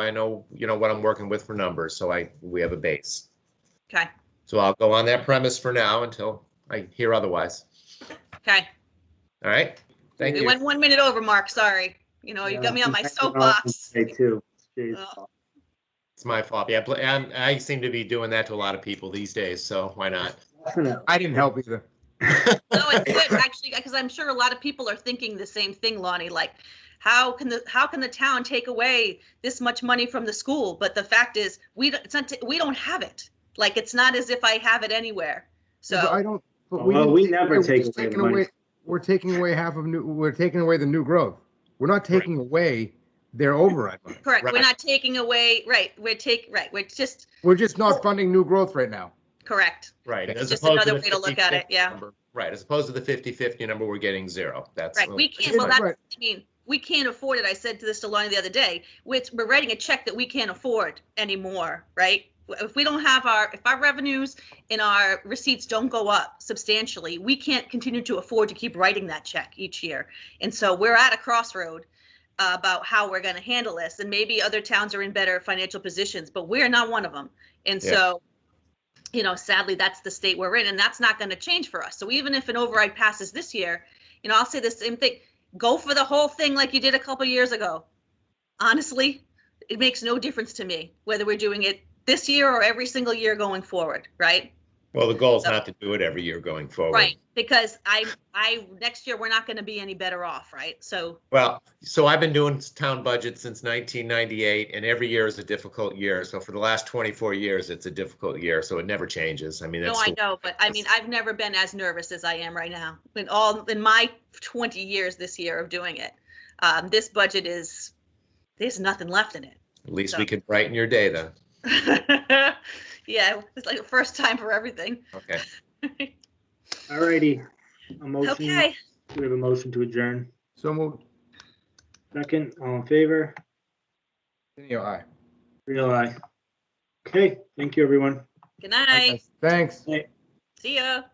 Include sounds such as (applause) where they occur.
I know, you know, what I'm working with for numbers, so I, we have a base. Okay, So I'll go on that premise for now until I hear otherwise. okay. All right? Thank We you. went one minute over, Mark, sorry. You know, you got me on my soapbox. Oh. Me too. Jeez. (laughs) It's my fault. Yeah, pl- and I seem to be doing that to a lot of people these days, so why not? Definitely. I didn't help either. (laughs) No, it's good, actually, because I'm sure a lot of people are thinking the same thing, Lonnie, like, how can the, how can the town take away this much money from the school? But the fact is, we, don't- it's not, we don't have it. Like, it's not as if I have it anywhere. But I So, don't. but Well, we didn't- never we're take just away the taking money. We're taking away half of new, we're taking away the new growth. We're not taking away their override money. correct, we're Right. not taking away, right, we're take, right, we're just, We're just not funding new growth right now. correct. Right. It's as just opposed another the way to look at 50-50 it, yeah. number. Right, as opposed to the 50-50 number, we're getting zero. That's. Right, we can't, well, Right. that's, I mean, we can't afford it. I said to this to Lonnie the other day, which we're writing a check that we can't afford anymore, right? If we don't have our, if our revenues and our receipts don't go up substantially, we can't continue to afford to keep writing that check each year. And so we're at a crossroad uh, about how we're gonna handle this, and maybe other towns are in better financial positions, but we're not one of them. And Yeah. so, you know, sadly, that's the state we're in, and that's not gonna change for us. So even if an override passes this year, you know, I'll say the same thing, go for the whole thing like you did a couple years ago. Honestly, it makes no difference to me whether we're doing it this year or every single year going forward, right? Well, the goal is not to do it every year going forward. Right, because I, I, next year, we're not gonna be any better off, right? So, Well, so I've been doing town budget since 1998, and every year is a difficult year. So for the last 24 years, it's a difficult year, so it never changes. I mean, no, that's. I the- know, but I mean, I've never been as nervous as I am right now. In all, in my twenty years this year of doing it, um, this budget is, there's nothing left in it. (laughs) At least we could brighten your day then. Yeah, it's like the first time for everything. Okay. All righty. A motion, we Okay, have a motion to adjourn. So moved. Second, all in favor? Tenio, aye. Real aye. Okay, thank you, everyone. good night, Thanks. see ya.